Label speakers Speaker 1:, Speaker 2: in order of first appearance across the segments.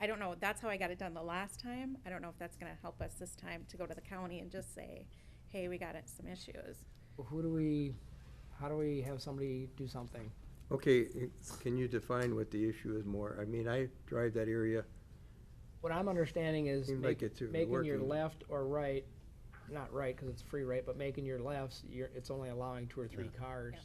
Speaker 1: I don't know, that's how I got it done the last time. I don't know if that's gonna help us this time to go to the county and just say, hey, we got it, some issues.
Speaker 2: Who do we, how do we have somebody do something?
Speaker 3: Okay, i- can you define what the issue is more? I mean, I drive that area,
Speaker 2: What I'm understanding is
Speaker 3: Seemed
Speaker 2: make-
Speaker 3: like it's, uh,
Speaker 2: making your
Speaker 3: working.
Speaker 2: left or right, not right, cause it's free right, but making your lefts, you're, it's only allowing two or three cars.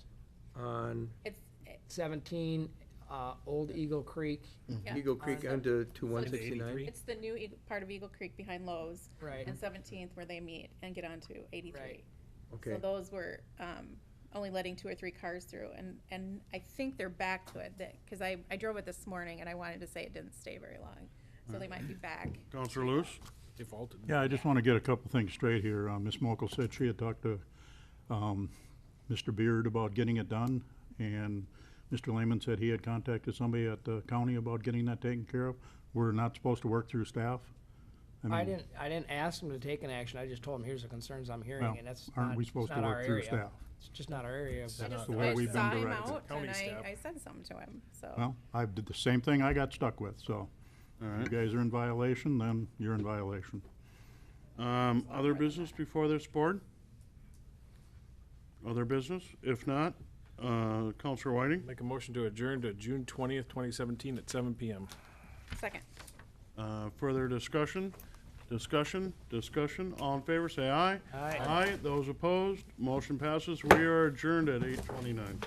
Speaker 3: on
Speaker 1: It's,
Speaker 2: Seventeen, uh, Old Eagle Creek,
Speaker 4: Mm.
Speaker 1: Yeah.
Speaker 3: Eagle Creek
Speaker 1: On-
Speaker 3: onto to one sixty-nine?
Speaker 5: 83.
Speaker 1: it's the new Eagle- part of Eagle Creek behind Lowe's
Speaker 2: right,
Speaker 1: and Seventeenth where they meet and get onto eighty-three.
Speaker 2: Right.
Speaker 3: Okay,
Speaker 1: So those were um, only letting two or three cars through, and, and I think they're back to it, because I, I drove it this morning, and I wanted to say it didn't stay very long, so they might be back.
Speaker 4: Counselor Lewis?
Speaker 5: defaulted.
Speaker 4: Yeah, I just want to get a couple things straight here. Uh, Ms. Mokel said she had talked to um, Mr. Beard about getting it done, and Mr. Lehman said he had contacted somebody at the county about getting that taken care of. We're not supposed to work through staff?
Speaker 2: I
Speaker 4: mean,
Speaker 2: didn't, I didn't ask them to take an action, I just told them, here's the concerns I'm hearing,
Speaker 4: well,
Speaker 2: and that's not,
Speaker 4: Aren't we
Speaker 2: it's
Speaker 4: supposed to
Speaker 2: not our
Speaker 4: work through
Speaker 2: area.
Speaker 4: staff?
Speaker 2: It's just not our area,
Speaker 1: I
Speaker 2: but
Speaker 5: That's
Speaker 1: just,
Speaker 4: the way
Speaker 1: I
Speaker 4: we've been
Speaker 1: saw him
Speaker 4: directed.
Speaker 1: out,
Speaker 5: County
Speaker 1: and I,
Speaker 5: staff.
Speaker 1: I said something to him, so,
Speaker 4: Well, I did the same thing I got stuck with, so. You guys are in violation, then you're in violation.
Speaker 6: Um, other business before this board? Other business? If not, uh, Counselor Whiting,
Speaker 5: Make a motion to adjourn to June twentieth, twenty seventeen at seven PM.
Speaker 1: second.
Speaker 6: uh, further discussion? Discussion, discussion, all in favor, say aye.
Speaker 2: Aye.
Speaker 6: Aye, those opposed, motion passes. We are adjourned at eight twenty-nine.